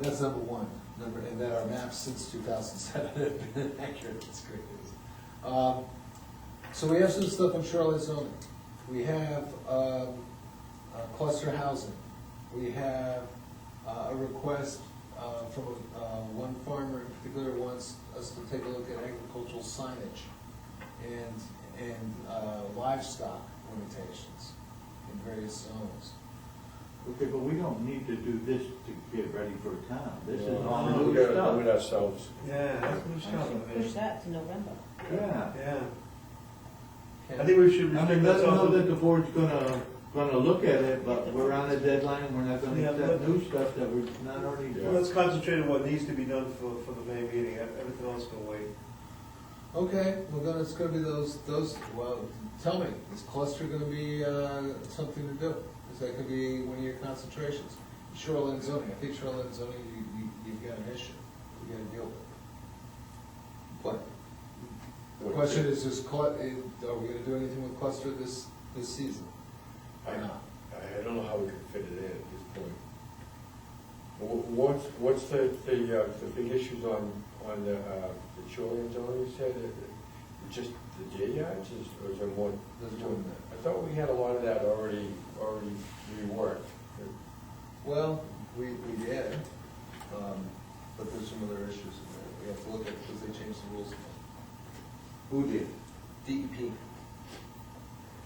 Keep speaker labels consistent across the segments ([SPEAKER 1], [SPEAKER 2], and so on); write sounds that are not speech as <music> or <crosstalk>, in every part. [SPEAKER 1] That's number one, number, and that our maps since two thousand seven <laughs> have been accurate, that's great news. Um, So we have some stuff on shoreline zoning, we have, um, uh, cluster housing, we have, uh, a request, uh, from, uh, one farmer in particular wants us to take a look at agricultural signage and, and uh, livestock limitations in various zones.
[SPEAKER 2] Okay, but we don't need to do this to get ready for town, this is
[SPEAKER 3] No,
[SPEAKER 2] all
[SPEAKER 3] We
[SPEAKER 2] new
[SPEAKER 3] gotta do it
[SPEAKER 2] stuff.
[SPEAKER 3] ourselves.
[SPEAKER 4] Yeah, that's new stuff.
[SPEAKER 5] Push that to November.
[SPEAKER 2] Yeah,
[SPEAKER 4] Yeah.
[SPEAKER 1] Okay.
[SPEAKER 4] I think we should.
[SPEAKER 2] I mean, let
[SPEAKER 4] restrict that
[SPEAKER 2] them know
[SPEAKER 4] also-
[SPEAKER 2] that the board's gonna, gonna look at it, but we're on a deadline, we're not gonna
[SPEAKER 4] Yeah,
[SPEAKER 2] accept
[SPEAKER 4] but-
[SPEAKER 2] new stuff that we're not already
[SPEAKER 3] Yeah.
[SPEAKER 2] doing.
[SPEAKER 4] Let's concentrate on what needs to be done for, for the May meeting, everything else can wait.
[SPEAKER 1] Okay, well, then it's gonna be those, those, well, tell me, is cluster gonna be, uh, something to do? Is that gonna be one of your concentrations? Shoreline zoning, I think shoreline zoning, you, you, you've got an issue, you gotta deal with it. But, the question is, is clu- eh, are we gonna do anything with cluster this, this season?
[SPEAKER 3] I, I don't know how we can fit it in at this point. Wh- What's, what's the, the, uh, the big issues on, on the, uh, the shoreline zone you said? Is it Just the day yards is, or is there more?
[SPEAKER 1] There's more than that.
[SPEAKER 3] I thought we had a lot of that already, already reworked.
[SPEAKER 1] Well, we, we did, um, but there's some other issues in there, we have to look at, because they changed the rules.
[SPEAKER 6] Who did?
[SPEAKER 1] DEP,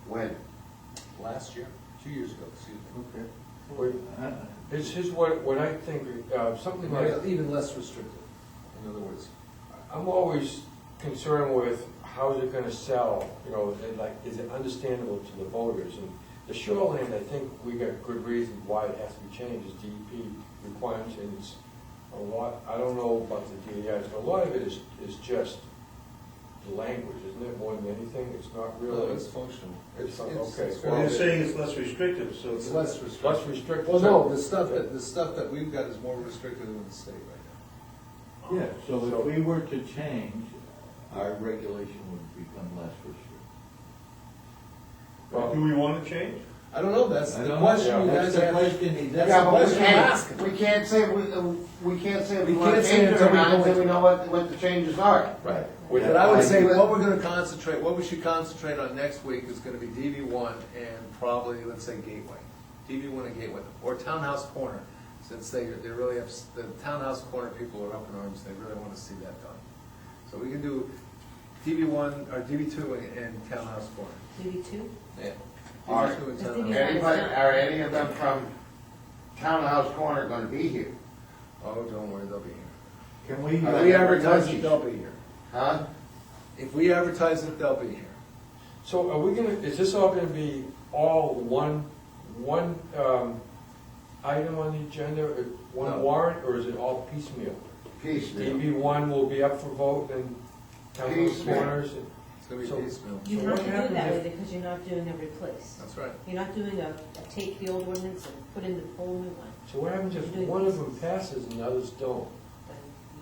[SPEAKER 6] When?
[SPEAKER 1] last year, two years ago, excuse me.
[SPEAKER 2] Okay.
[SPEAKER 3] Wait,
[SPEAKER 2] Uh,
[SPEAKER 3] This is what, what I think, uh, something like.
[SPEAKER 1] Even less restrictive, in other words.
[SPEAKER 3] I'm always concerned with how's it gonna sell, you know, and like, is it understandable to the voters? And the shoreline, I think we got good reason why it has to be changed, is DEP requirements, and it's a lot, I don't know about the DEIs, but a lot of it is, is just the language, isn't it, more than anything? It's not
[SPEAKER 1] No,
[SPEAKER 3] really,
[SPEAKER 1] it's
[SPEAKER 3] Oh, it's
[SPEAKER 1] functional.
[SPEAKER 3] It's-
[SPEAKER 1] it's-
[SPEAKER 3] okay.
[SPEAKER 1] it's-
[SPEAKER 4] Well, you're saying it's less restrictive, so.
[SPEAKER 1] It's less
[SPEAKER 3] less
[SPEAKER 1] restrictive.
[SPEAKER 3] restrictive.
[SPEAKER 1] Well, no, the stuff that, the stuff that we've got is more restrictive than the state right
[SPEAKER 2] Yeah, so
[SPEAKER 3] So-
[SPEAKER 2] if we were to change, our regulation would become less restrictive.
[SPEAKER 4] Do
[SPEAKER 3] Well,
[SPEAKER 4] we want to change?
[SPEAKER 1] now. I don't know, that's
[SPEAKER 2] I
[SPEAKER 1] the
[SPEAKER 2] don't-
[SPEAKER 1] question you
[SPEAKER 2] yeah,
[SPEAKER 1] guys
[SPEAKER 2] That's the
[SPEAKER 1] have.
[SPEAKER 2] question, he-
[SPEAKER 1] Yeah,
[SPEAKER 2] that's
[SPEAKER 1] but
[SPEAKER 2] what
[SPEAKER 1] we
[SPEAKER 2] we
[SPEAKER 1] can't-
[SPEAKER 2] have.
[SPEAKER 6] We can't say, we, uh, we can't say we
[SPEAKER 1] We
[SPEAKER 6] want to
[SPEAKER 1] can't say
[SPEAKER 6] change it
[SPEAKER 1] until
[SPEAKER 6] or
[SPEAKER 1] we
[SPEAKER 6] not
[SPEAKER 1] know
[SPEAKER 6] until we
[SPEAKER 1] it.
[SPEAKER 6] know what, what the changes are.
[SPEAKER 3] right. With-
[SPEAKER 1] But I would say
[SPEAKER 6] Yeah.
[SPEAKER 1] what we're gonna concentrate, what we should concentrate on next week is gonna be DB one and probably, let's say, Gateway. DB one and Gateway, or Townhouse Corner, since they, they really have, the Townhouse Corner people are up in arms, they really wanna see that done. So we can do DB one, or DB two and- and Townhouse Corner.
[SPEAKER 5] Maybe two?
[SPEAKER 1] Yeah.
[SPEAKER 6] All right.
[SPEAKER 1] DB2 and
[SPEAKER 5] I think
[SPEAKER 1] Townhouse.
[SPEAKER 5] you have-
[SPEAKER 6] Anybody, are any of them from Townhouse Corner gonna be here?
[SPEAKER 1] Oh, don't worry, they'll be here.
[SPEAKER 2] Can we?
[SPEAKER 6] Are
[SPEAKER 1] If
[SPEAKER 6] they
[SPEAKER 1] we
[SPEAKER 6] ever
[SPEAKER 1] advertise it,
[SPEAKER 6] touched?
[SPEAKER 1] they'll be here.
[SPEAKER 6] Huh?
[SPEAKER 1] If we advertise it, they'll be here.
[SPEAKER 3] So are we gonna, is this all gonna be all one, one um, item on the agenda, uh,
[SPEAKER 1] No.
[SPEAKER 3] one warrant, or is it all piecemeal?
[SPEAKER 6] Piecemeal.
[SPEAKER 3] DB one will be up for vote and town those
[SPEAKER 6] Piecemeal.
[SPEAKER 3] corners? and-
[SPEAKER 1] It's gonna be
[SPEAKER 3] So-
[SPEAKER 1] piecemeal.
[SPEAKER 5] You
[SPEAKER 3] So
[SPEAKER 5] have
[SPEAKER 3] what
[SPEAKER 5] to do it
[SPEAKER 3] happens
[SPEAKER 5] that
[SPEAKER 3] if-
[SPEAKER 5] way because you're not doing a replace.
[SPEAKER 1] That's right.
[SPEAKER 5] You're not doing a, a take the old ordinance and put in the whole new one.
[SPEAKER 3] So what happens if one of them passes and the others don't?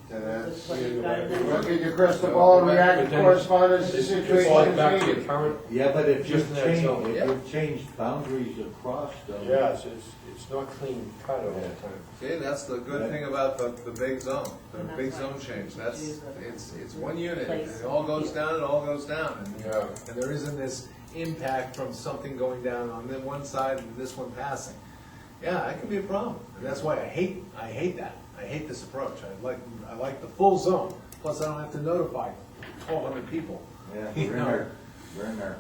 [SPEAKER 5] Then you-
[SPEAKER 6] That's-
[SPEAKER 5] what you've got to do.
[SPEAKER 6] Look at your crystal ball and react
[SPEAKER 3] But
[SPEAKER 6] to
[SPEAKER 3] then
[SPEAKER 6] correspondence to
[SPEAKER 3] It's it's all back to the
[SPEAKER 6] situations.
[SPEAKER 3] current,
[SPEAKER 2] Yeah, but if
[SPEAKER 3] Just
[SPEAKER 2] you've
[SPEAKER 3] in that
[SPEAKER 2] changed,
[SPEAKER 3] zone,
[SPEAKER 2] if
[SPEAKER 1] yeah.
[SPEAKER 2] you've changed boundaries across those.
[SPEAKER 3] yeah, so it's, it's not clean cut all the time.
[SPEAKER 1] See, that's the good thing about the, the big zone, the
[SPEAKER 5] And that's
[SPEAKER 1] big
[SPEAKER 5] why
[SPEAKER 1] zone
[SPEAKER 5] you
[SPEAKER 1] change,
[SPEAKER 5] choose
[SPEAKER 1] that's,
[SPEAKER 5] the
[SPEAKER 1] it's, it's one unit,
[SPEAKER 5] place.
[SPEAKER 1] it all goes down, it all goes down. and-
[SPEAKER 3] Yeah.
[SPEAKER 1] And there isn't this impact from something going down on then one side and this one passing. Yeah, that could be a problem, and that's why I hate, I hate that, I hate this approach, I like, I like the full zone, plus I don't have to notify twelve hundred people.
[SPEAKER 2] Yeah,
[SPEAKER 1] You
[SPEAKER 2] we're in
[SPEAKER 1] know.
[SPEAKER 2] our, we're in our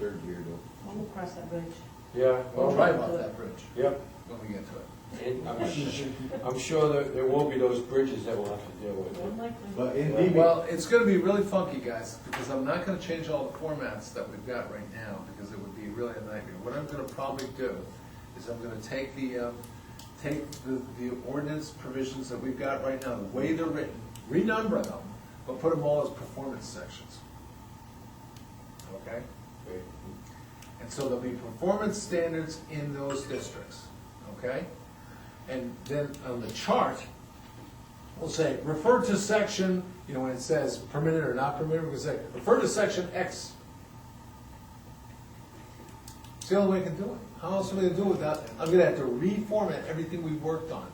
[SPEAKER 2] third year though.
[SPEAKER 5] When we cross that bridge.
[SPEAKER 3] Yeah,
[SPEAKER 1] We'll
[SPEAKER 3] well,
[SPEAKER 1] try about that bridge
[SPEAKER 3] Yep,
[SPEAKER 1] when we get to it.
[SPEAKER 3] and I'm, su- I'm sure that there will be those bridges that we'll have to deal with.
[SPEAKER 5] One like one.
[SPEAKER 2] But in
[SPEAKER 3] Well,
[SPEAKER 2] DB,
[SPEAKER 1] Well, it's gonna be really funky, guys, because I'm not gonna change all the formats that we've got right now, because it would be really a nightmare. What I'm gonna probably do is I'm gonna take the, um, take the, the ordinance provisions that we've got right now, the way they're written, renumber them, but put them all as performance sections. Okay?
[SPEAKER 3] Okay.
[SPEAKER 1] And so there'll be performance standards in those districts, okay? And then on the chart, we'll say, refer to section, you know, when it says permitted or not permitted, we'll say, refer to section X. It's the only way I can do it. How else am I gonna do it without, I'm gonna have to reformat everything we've worked on.